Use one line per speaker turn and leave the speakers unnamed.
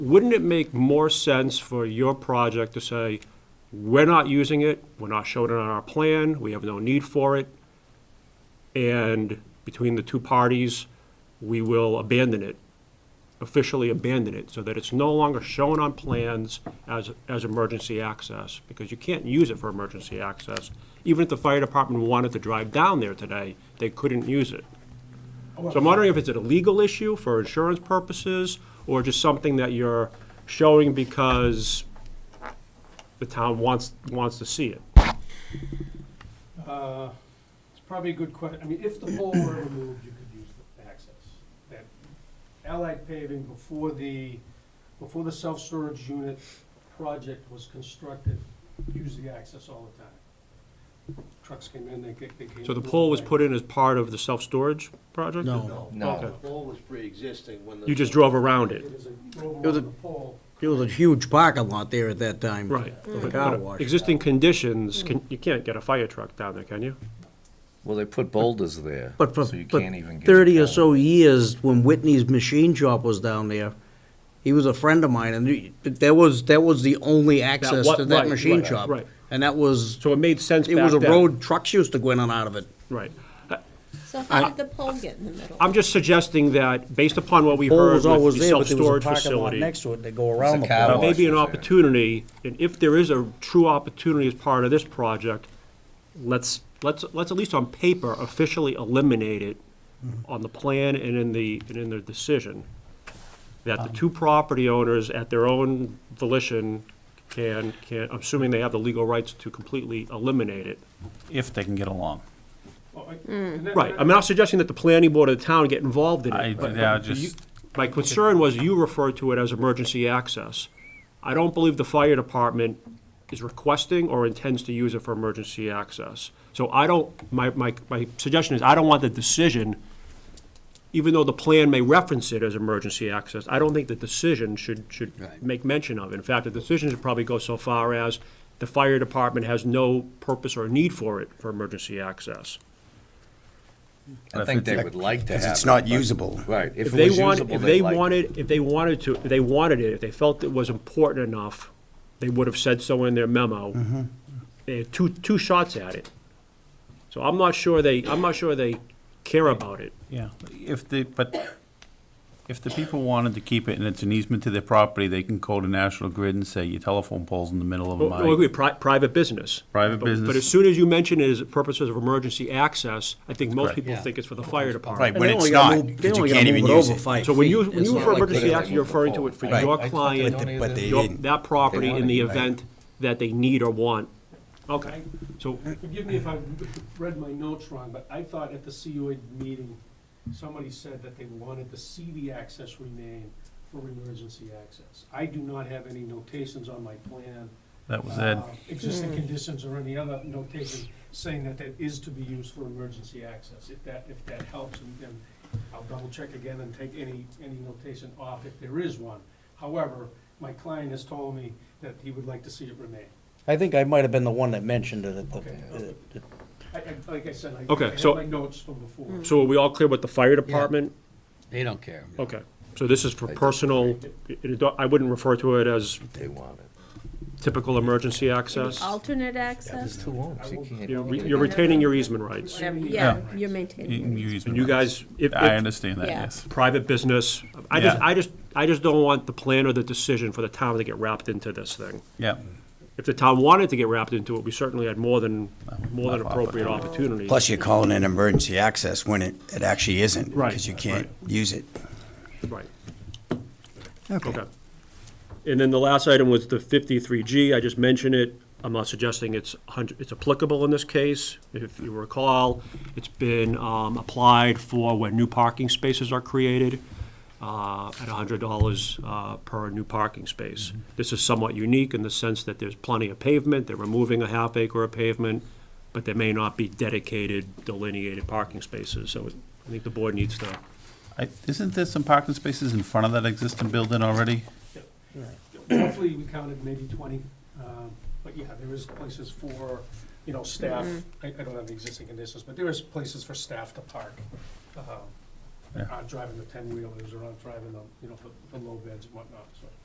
wouldn't it make more sense for your project to say, we're not using it, we're not showing it on our plan, we have no need for it, and between the two parties, we will abandon it, officially abandon it, so that it's no longer shown on plans as, as emergency access, because you can't use it for emergency access. Even if the fire department wanted to drive down there today, they couldn't use it. So I'm wondering if it's a legal issue for insurance purposes, or just something that you're showing because the town wants, wants to see it.
Uh, It's probably a good question. I mean, if the pole were removed, you could use the access. That Allied paving before the, before the self-storage unit project was constructed, used the access all the time. Trucks came in, they ca- they came.
So the pole was put in as part of the self-storage project?
No,
No.
Okay.
The pole was pre-existing when the.
You just drove around
It
it?
is a
It was a-
the pole.
it was a huge parking lot there at that time.
Right.
For the
But-
car
but
wash.
Existing conditions, can- you can't get a fire truck down there, can you?
Well, they put boulders there,
But for,
so you
but
can't even get.
thirty
it
or
down.
so years, when Whitney's machine shop was down there, he was a friend of mine, and he- that was, that was the only access
what-
to
right,
that machine
right,
shop.
right.
And that was,
So it made sense
it was a
back then.
road, trucks used to go in and out of it.
Right.
So how did the pole get in the middle?
I'm just suggesting that, based upon what we
Pole
heard
was
with
always
the
there, but there
self-storage
was a parking lot
facility.
next to it, they go around
There's
the
a car
Now,
pole.
wash.
maybe an
there.
opportunity, and if there is a true opportunity as part of this project, let's, let's, let's at least on paper officially eliminate it on the plan and in the, and in the decision. That the two property owners at their own volition can, can, assuming they have the legal rights to completely eliminate it.
if they can get along.
Oh, I- and that-
Right, I'm not suggesting that the planning board of the town get involved in
I-
it. but-
yeah,
but you-
just-
My concern was you referred to it as emergency access. I don't believe the fire department is requesting or intends to use it for emergency access. So I don't, my, my, my suggestion is I don't want the decision, even though the plan may reference it as emergency access, I don't think the decision should, should make mention of it. In fact, the decision should probably go so far as the fire department has no purpose or need for it for emergency access.
I think they would like to have.
Because it's
it,
not
but-
usable.
Right.
If
it
they
was
want,
usable,
if
they'd
they
like it.
wanted, if they wanted to, if they wanted it, if they felt it was important enough, they would have said so in their memo. They had two, two shots at it. So I'm not sure they, I'm not sure they care about it.
Yeah, if the, but if the people wanted to keep it and it's an easement to their property, they can call the National Grid and say, your telephone pole's in the middle of
Well, agree,
my
pri- private business.
private
But- But as
business.
soon as you mention it as purposes of emergency access, I think most
Correct.
people think it's for the fire
Right,
department.
And
when
they
it's
only gotta move-
not,
they
because you
only
can't
gotta
even
move it
use
over
it.
five
So when you,
feet.
when
It's
you
not
refer to
like
emergency
they-
access, you're referring to it for
Right.
your
I thought they
client,
donated
But they
your-
didn't.
that property in the
wanted it, right.
event that they need or want. Okay, so
Forgive me if I read my notes wrong, but I thought at the COA meeting, somebody said that they wanted to see the access remain for emergency access. I do not have any notations on my plan.
That was
uh,
Ed.
Existing conditions or any other notation saying that that is to be used for emergency access. If that, if that helps, and then I'll double check again and take any, any notation off if there is one. However, my client has told me that he would like to see it remain.
I think I might have been the one that mentioned it at the,
Okay.
uh, at
I, I, like I said, I,
Okay,
I have
so-
my notes from before.
So are we all clear with the fire department?
They don't care.
Okay, so this is for personal, it- it- I wouldn't refer to it as
They want it.
typical emergency
Any
access.
Alternate
There's
access?
two homes, you can't.
You're re- you're retaining your easement rights.
Whatever,
Yeah.
yeah, you're
You
maintaining.
can
it.
use
And you
my-
guys, if,
I
if
understand that,
Yeah.
yes.
private business, I just,
Yeah.
I just, I just don't want the plan or the decision for the town to get wrapped into this thing.
Yeah,
If the town wanted to get wrapped into it, we certainly had more than, more than
not
appropriate opportunity.
Plus, you're calling it emergency access when it, it actually isn't.
Right,
Because you can't use it.
Right. Okay. And then the last item was the 53G. I just mentioned it. I'm not suggesting it's 100, it's applicable in this case. If you recall, it's been um, applied for when new parking spaces are created uh, at $100 uh, per new parking space. This is somewhat unique in the sense that there's plenty of pavement. They're removing a half acre of pavement, but there may not be dedicated delineated parking spaces. So I think the board needs to
I- Isn't there some parking spaces in front of that existing building already?
Hopefully, we counted maybe twenty, um, but yeah, there is places for, you know, staff. I, I don't have the existing conditions, but there is places for staff to park. um,
Yeah.
Aren't driving the ten-wheelers or aren't driving the, you know, the, the low beds and whatnot, so.